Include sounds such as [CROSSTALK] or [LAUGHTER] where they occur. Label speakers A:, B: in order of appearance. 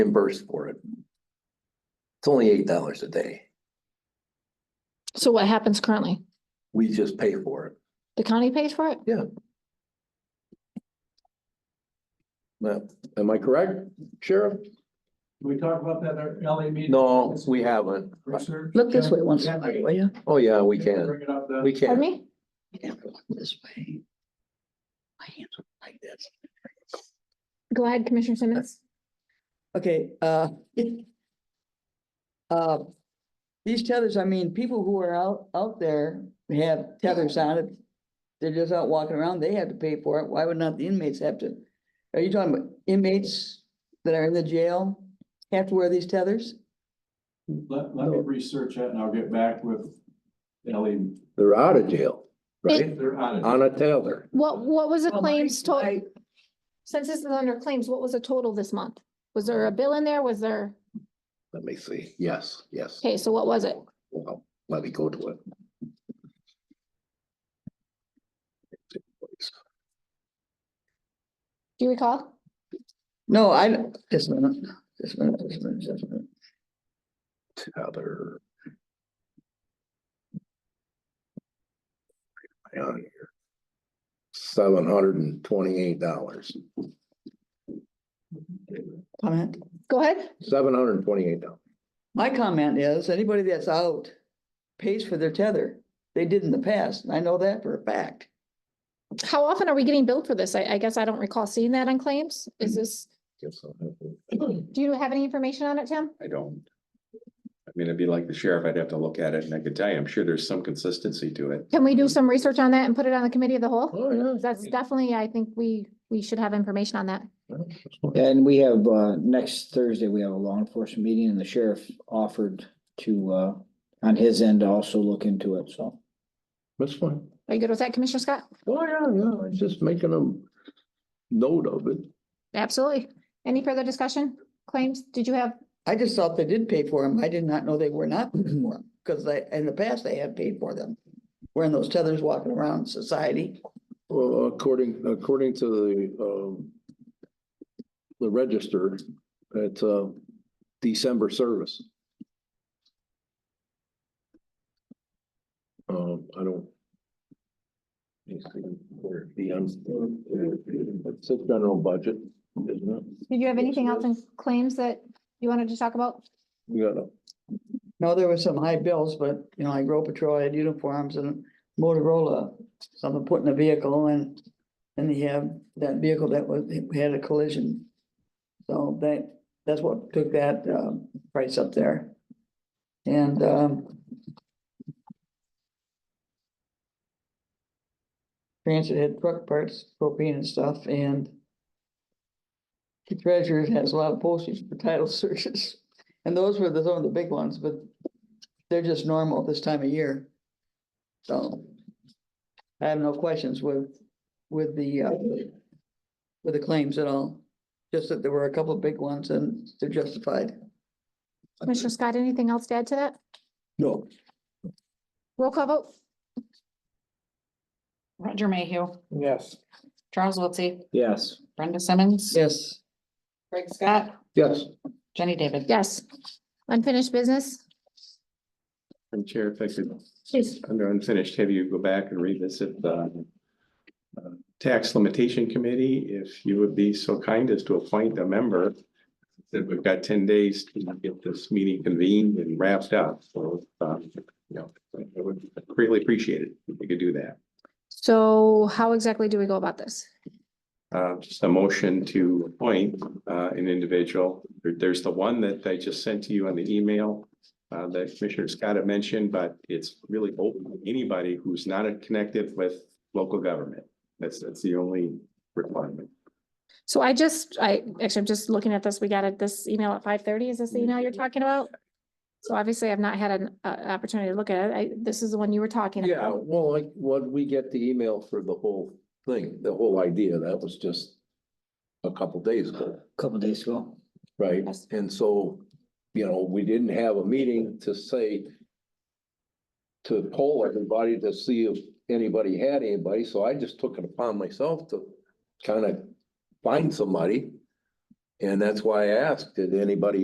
A: reimbursed for it. It's only eight dollars a day.
B: So what happens currently?
A: We just pay for it.
B: The county pays for it?
A: Now, Am I correct, Sheriff?
C: Did we talk about that at our LA meeting?
A: No, we haven't.
C: Research?
D: Look this way once, in
C: Yeah.
D: a while, will you?
A: Oh, yeah, we can.
C: Bring it up then.
A: We
B: Pardon
A: can.
B: me?
D: Yeah, look this way. My hands are like this.
B: Go ahead, Commissioner Simmons.
D: Okay, uh. [LAUGHS] Uh, these tethers, I mean, people who are out, out there have tethers on it. They're just out walking around, they have to pay for it. Why would not the inmates have to? Are you talking about inmates that are in the jail have to wear these tethers?
C: Let, let me research that and I'll get back with LA.
A: They're out of jail, right?
C: They're on
A: On a tether.
B: What, what was the
D: Well,
B: claims
C: Oh,
D: my-
B: total? Since this is under claims, what was the total this month? Was there a bill in there? Was there,
A: Let me see. Yes, yes.
B: okay, so what was it?
A: Well, let me go to it.
B: Do you recall?
D: No, I, just a minute, just a minute, just a minute, just a minute.
A: Tether. Right on here. Seven hundred and twenty-eight dollars.
D: Comment?
B: Go ahead.
A: Seven hundred and twenty-eight dollars.
D: My comment is, anybody that's out pays for their tether. They did in the past, and I know that for a fact.
B: How often are we getting billed for this? I, I guess I don't recall seeing that on claims. Is this,
A: Guess I'll have to-
B: do you have any information on it, Tim?
E: I don't. I mean, it'd be like the sheriff, I'd have to look at it and I could tell you, I'm sure there's some consistency to it.
B: Can we do some research on that and put it on the committee of the whole?
A: Oh, yeah.
B: That's definitely, I think we, we should have information on that.
F: And we have, uh, next Thursday, we have a law enforcement meeting and the sheriff offered to, uh, on his end to also look into it, so.
A: That's fine.
B: Are you good with that, Commissioner Scott?
A: Oh, yeah, yeah, I'm just making a note of it.
B: Absolutely. Any further discussion? Claims, did you have,
D: I just thought they did pay for them. I did not know they were not paying for them, because they, in the past, they have paid for them. Wearing those tethers walking around society.
A: Well, uh, according, according to the, um, the register, it's uh December service. Um, I don't. It's a general budget, isn't it?
B: did you have anything else in claims that you wanted to talk about?
A: We got a
D: No, there were some high bills, but, you know, like road patrol had uniforms and Motorola, someone put in a vehicle and, and you have that vehicle that was, had a collision. So that, that's what took that, um, price up there. And, um, transit had truck parts, propane and stuff, and the treasurer has a lot of postage for title [LAUGHS] searches. And those were the, some of the big ones, but they're just normal this time of year. So I have no questions with, with the, uh, with the claims at all. Just that there were a couple of big ones and they're justified.
B: Commissioner Scott, anything else to add to that?
A: No,
B: Roll call vote?
G: Roger Mayhew,
C: Yes.
G: Charles Wiltie,
F: Yes.
G: Brenda Simmons,
D: Yes.
G: Greg Scott,
A: yes,
G: Jenny David.
B: Yes. Unfinished business?
E: And Chair, if I could,
B: Please.
E: under unfinished, have you go back and revisit the uh, Tax Limitation Committee, if you would be so kind as to appoint a member. That we've got ten days to get this meeting convened and wrapped up, so, um, you know, I would greatly appreciate it if you could do that.
B: So how exactly do we go about this?
E: Uh, just a motion to appoint, uh, an individual. There- there's the one that I just sent to you on the email. Uh, that Commissioner Scott had mentioned, but it's really open to anybody who's not connected with local government. That's, that's the only requirement.
B: So I just, I, actually, I'm just looking at this. We got it, this email at five thirty. Is this the email you're talking about? So obviously I've not had an, uh, opportunity to look at it. I, this is the one you were talking
A: yeah,
B: about.
A: well, like, what, we get the email for the whole thing, the whole idea, that was just a couple days ago.
F: Couple days ago.
A: Right,
B: Yes.
A: and so, you know, we didn't have a meeting to say. To poll everybody to see if anybody had anybody, so I just took it upon myself to kind of find somebody. And that's why I asked, did anybody